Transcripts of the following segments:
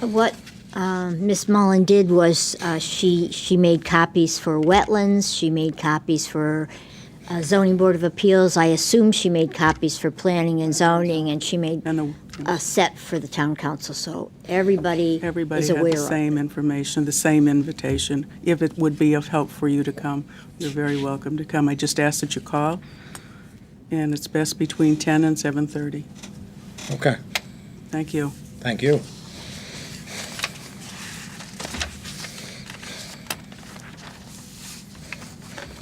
What um, Ms. Mullen did was uh, she, she made copies for wetlands, she made copies for uh, zoning board of appeals. I assume she made copies for planning and zoning, and she made And the- a set for the town council, so everybody Everybody is had the aware of it. same information, the same invitation. If it would be of help for you to come, you're very welcome to come. I just ask that you call, and it's best between 10 and 7:30. Okay, Thank you. thank you.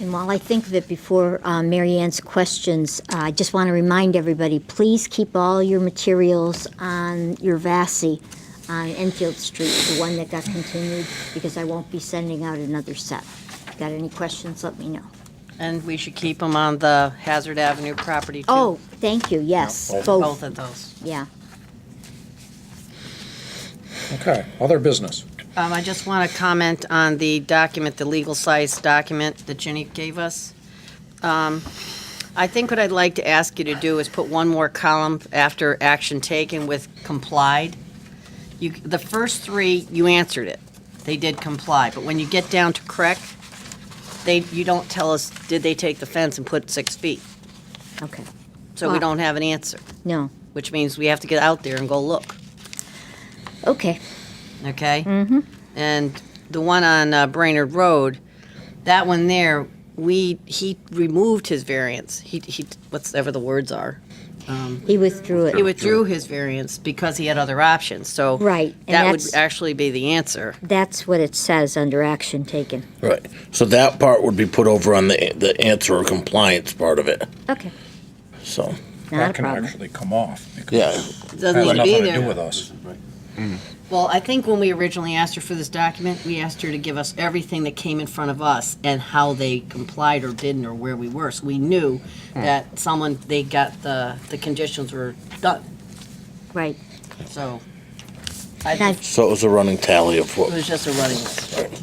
And while I think of it before uh, Mary Ann's questions, uh, I just want to remind everybody, please keep all your materials on your VASI on Enfield Street, the one that got continued, because I won't be sending out another set. Got any questions, let me know. And we should keep them on the Hazard Avenue property, too. Oh, thank you, yes, Both. Both both, of those. yeah. Okay, other business. Um, I just want to comment on the document, the legal size document that Ginny gave us. Um, I think what I'd like to ask you to do is put one more column after action taken with complied. You, the first three, you answered it. They did comply, but when you get down to correct, they, you don't tell us, did they take the fence and put six feet? Okay, So we Wow. don't have an answer, no, which means we have to get out there and go look. okay, okay? Mm-hmm. And the one on uh, Brainerd Road, that one there, we he removed his variance. He he whatever the words are. he withdrew He it. withdrew his variance because he had other options. So Right, and that would that's- actually be the answer. That's what it says under action taken. Right. So that part would be put over on the, the answer or compliance part of it. Okay, So, not a That can problem. actually come off because yeah. It it doesn't has need to be nothing to do there. with us. Well, I think when we originally asked her for this document, we asked her to give us everything that came in front of us and how they complied or didn't or where we were. So we knew Hmm. that someone they got the the conditions were done. Right, So and I I, So it was a running tally of it was what. just a running list.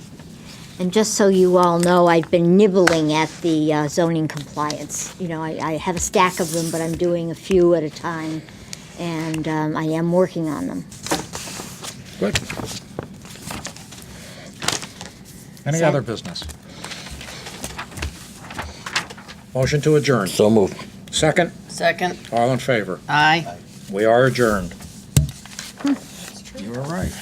And just so you all know, I've been nibbling at the uh, zoning compliance. You know, I, I have a stack of them, but I'm doing a few at a time, and um, I am working on them. Good. Any So- other business? Motion to adjourn. So moved. Second, Second, all in favor. aye. We are adjourned. You were right.